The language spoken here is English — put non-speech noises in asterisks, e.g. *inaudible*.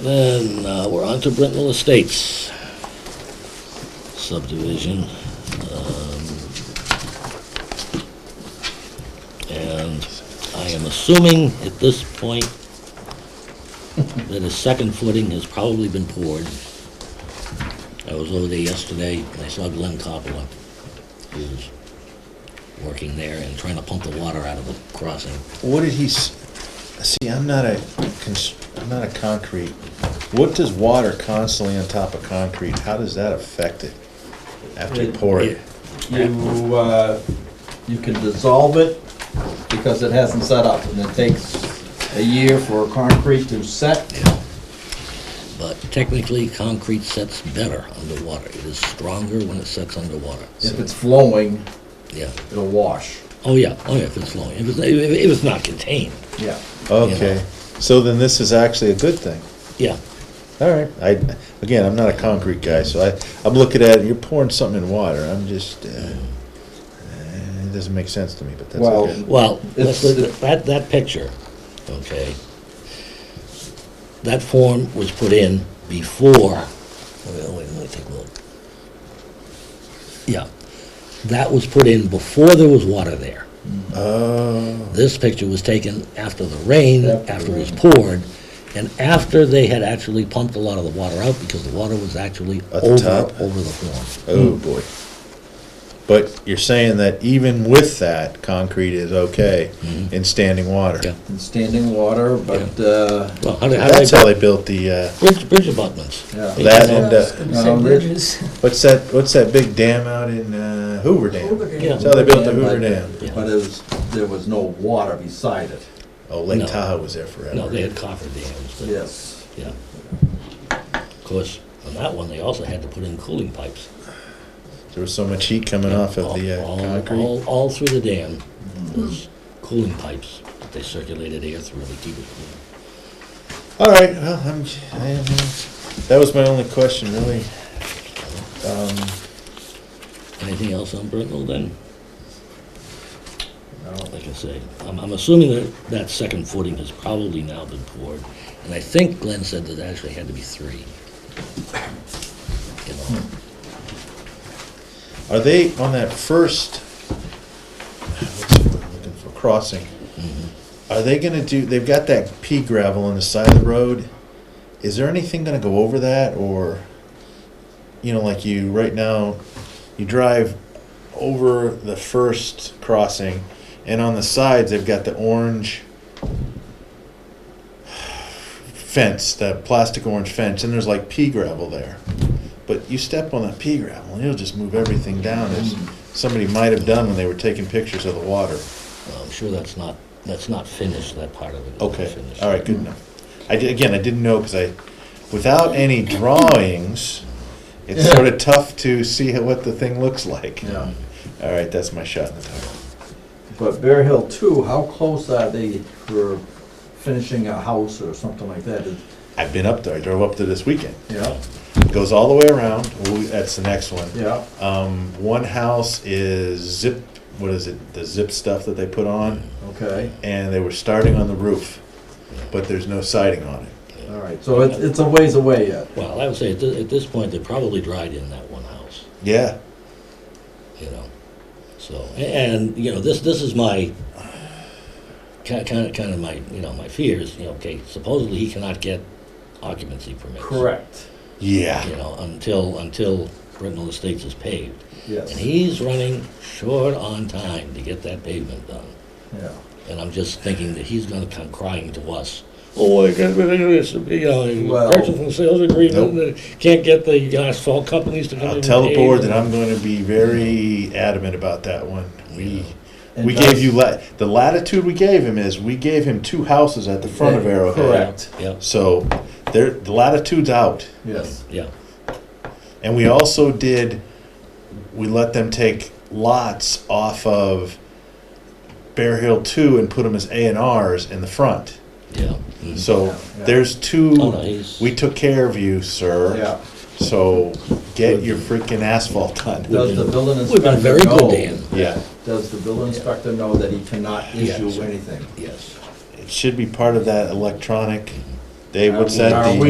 Then, uh, we're on to Brittenell Estates subdivision. um, And I am assuming at this point that his second footing has probably been poured. I was over there yesterday, and I saw Glenn Coppola, who was working there and trying to pump the water out of the crossing. What did he, s- see, I'm not a, cons- I'm not a concrete, what does water constantly on top of concrete, how does that affect it? After you pour it? You, uh, you can dissolve it because it hasn't set up and it takes a year for concrete to set. But technically, concrete sets better underwater. It is stronger when it sets underwater. If it's flowing, Yeah. it'll wash. Oh, yeah. Oh, yeah, if it's flowing. If it's, if if it's not contained. Yeah. Okay, so then this is actually a good thing. Yeah. All right, I, again, I'm not a concrete guy, so I, I'm looking at it, you're pouring something in water, I'm just, uh, uh, it doesn't make sense to me, but that's Well- okay. Well, let's It's- look at that, that picture, okay? That form was put in before, well, wait, let me take a look. Yeah. That was put in before there was water there. Oh, This picture was taken after the rain, After the after it was rain. poured, and after they had actually pumped a lot of the water out because the water was actually At the over, top? over the form. oh, boy. But you're saying that even with that, concrete is okay in standing water? Yeah. In standing water, but, uh, Well, how did, how did That's how they, they built the, uh, bridge, bridge abutments. Yeah. They That did and, uh, No, Same Rich- bridges. what's that, what's that big dam out in uh, Hoover Dam? Yeah. That's how they built the Hoover Hoover Dam, Dam. Dam. but it was, there was no water beside it. Oh, No. Lake Tahoe was there No, they had forever. copper dams, but- Yes. yeah. Of course, on that one, they also had to put in cooling pipes. There was so much heat coming off of the uh, All- all- concrete. Mm-hmm. All, all through the dam was cooling pipes that they circulated air through to keep it cool. All right, well, I'm, I am, uh, that was my only question, really. Um, Anything else on Brittenell then? No. like I say, I'm, I'm assuming that that second footing has probably now been poured, and I think Glenn said that actually had to be three. You know, Hmm. Are they on that first, what's the word I'm looking for, crossing? Are they gonna do, they've got that pea gravel on the side of the road. Is there anything gonna go over that or, you know, like you, right now, you drive over the first crossing and on the sides, they've got the orange *sighs* fence, that plastic orange fence, and there's like pea gravel there. But you step on that pea gravel and it'll just move everything down as somebody might have done when they were taking pictures of the water. well, I'm sure that's not, that's not finished, that part of it. is not Okay, finished. all right, good enough. I did, again, I didn't know because I, without any drawings, it's sort of tough to see how- what the thing looks like. Yeah. All right, that's my shot in the dark. But Bear Hill Two, how close are they for finishing a house or something like that? Is- I've been up there, I drove up there this weekend. Yeah, Goes all the way around, Ooh, that's the next one. yeah. Um, one house is zip, what is it, the zip stuff that they put on, Okay, and they were starting on the roof, but there's no siding on it. all right, so it's, it's a ways away yet. Well, I would say at this, at this point, they're probably dried in that one house, Yeah, you know, so, a- and, you know, this, this is my, kind, kind of, kind of my, you know, my fears, you know, okay, supposedly he cannot get occupancy permits. Correct, You yeah. know, until, until Brittenell Estates is paved. yes. And he's running short on time to get that pavement done. Yeah, And I'm just thinking that he's gonna come crying to us. Oh, I got, you know, Well- purchase and sales agreement, and can't get the asphalt companies to come in. I'll and tell the pave board and- that I'm going to be very adamant about that one. We, Yeah. we And gave you, that's- la- the latitude we gave him is, we gave him two houses at the front of Yeah, Arrowhead. correct. Yep, So, there, the latitude's out. yes, yeah, And we also did, we let them take lots off of Bear Hill Two and put them as A and Rs in the front. yeah. mhm. So Yeah, yeah. there's two, Oh, no, he's- we took care of you, sir. yeah. So get your freaking asphalt done. Does the building We've been inspector very good, know, Dan, Yeah, does the building inspector know that he cannot Yes. issue anything? yes. it should be part of that electronic, Dave, what's that? Are the- we